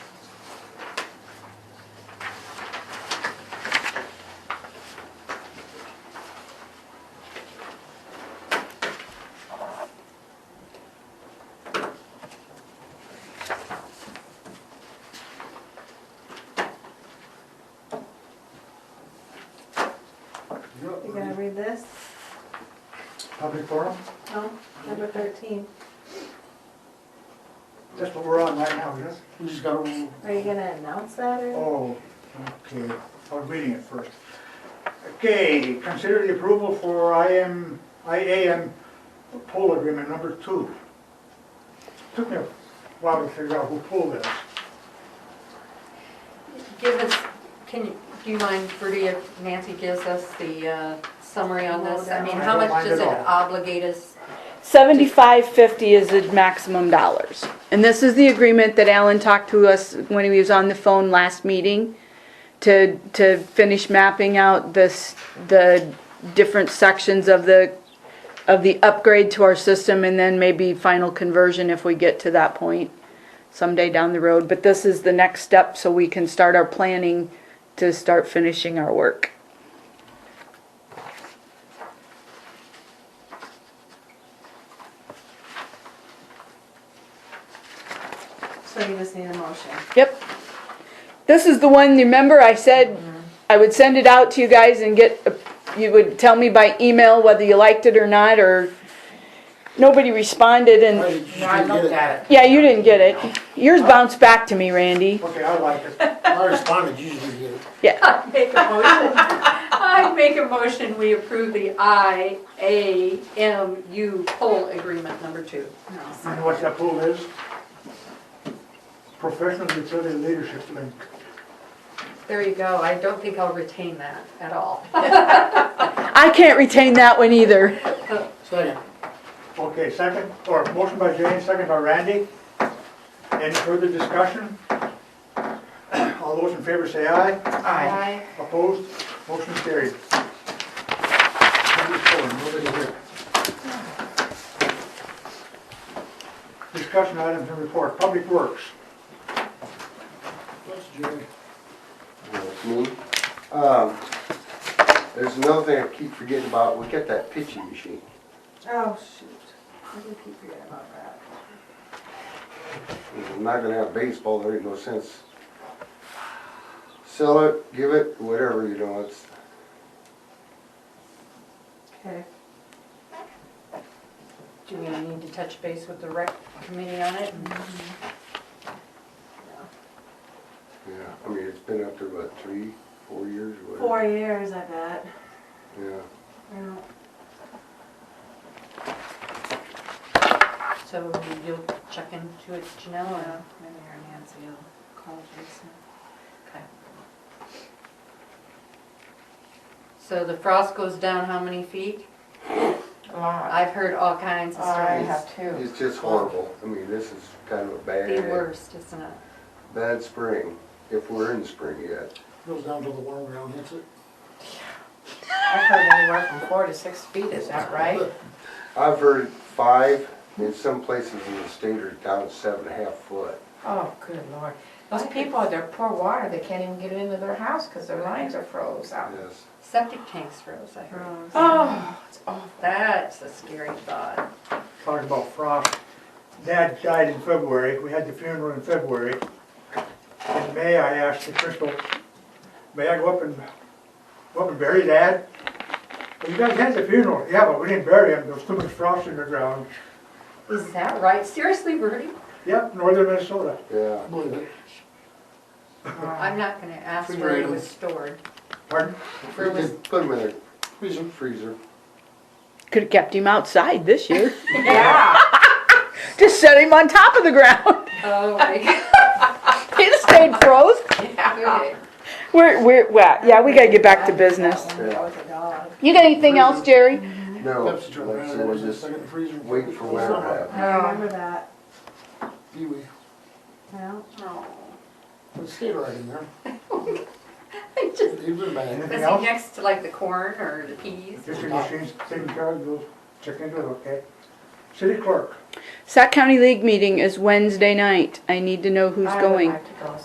through this, Public forum, no, number thirteen. that's what we're on right now, yes? We just got, a- Are you gonna announce that or? oh, okay, I was reading it first. Okay, consider the approval for IM, IAM pool agreement number two. Took me a while to figure out who pulled this. Give us, can, you- do you mind, Bertie, if Nancy gives us the uh, summary on this? I mean, how I don't much mind does it at all. obligate us? Seventy-five fifty is the maximum dollars. And this is the agreement that Alan talked to us when he was on the phone last meeting to, to finish mapping out this, the different sections of the, of the upgrade to our system and then maybe final conversion if we get to that point someday down the road. But this is the next step so we can start our planning to start finishing our work. So you just need a motion. Yep. This is the one, you remember I said I would send it out to you guys and get, you would tell me by email whether you liked it or not, or nobody responded and, No, I looked at yeah, you didn't get it. Yours bounced back to me, Randy. Okay, I like it. I responded, usually you I make a motion, I make a motion, we approve the IAMU poll agreement number two. And what that pool is? Professional Utility Leadership Link. There you go, I don't think I'll retain that at all. I can't retain that one either. Second. Okay, second, or motion by Jane, second by Randy. Any further discussion? All those in favor say aye. Aye. Opposed? Motion carried. Number four, nobody here. Discussion items and report, Public Works. That's me. Um, There's another thing I keep forgetting about, we got that pitching machine. Oh, shoot. I did keep forgetting about that. If I'm not gonna have baseball, there ain't no sense. Sell it, give it, whatever, you know, it's, Okay. Do we need to touch base with the rec committee on it? yeah, I mean, it's been up there about three, four years, or whatever. Four years, I bet. Yeah, Yeah. So you'll check into it, Janelle, or maybe her Nancy will call Jason. Okay. So the frost goes down how many feet? A lot. I've heard all kinds of I stories. have two. it's just horrible. I mean, this is kind of a The bad, worst, isn't it? bad spring, if we're in spring yet. Goes down to the warm ground, hits it. I've heard anywhere from four to six feet, is that right? I've heard five, in some places in the state are down seven and a half foot. Oh, good lord. Those people, they're poor water, they can't even get it into their house because their lines are froze out. Yes, Septic tanks froze, I heard. Oh, it's awful. That's a scary thought. Talking about frost. Dad died in February, we had the funeral in February. In May, I asked the Crystal, may I go up and, go up and bury Dad? Well, you guys had the funeral, yeah, but we didn't bury him, there was too much frost in the ground. Is that right? Seriously, Bertie? Yep, northern Minnesota. yeah. I'm not gonna ask where it was stored. Pardon? Where You was, just Put them in a freezer. Freezer. Could've kept him outside this year. Yeah. Just set him on top of the ground. oh, my God. He'd have stayed froze. Okay. We're, we're, well, yeah, we gotta get back to business. That one, that was a dog. You got anything else, Jerry? No, like I said, we're just waiting for winter to happen. Oh. I remember that. No, Oh. Stay right in there. I just Leave them back. Was Anything he else? next to like the corn or the peas? Just your machines taken care of, we'll check into it, okay? City clerk. Sac County League meeting is Wednesday night. I need to know who's I would going. like to go.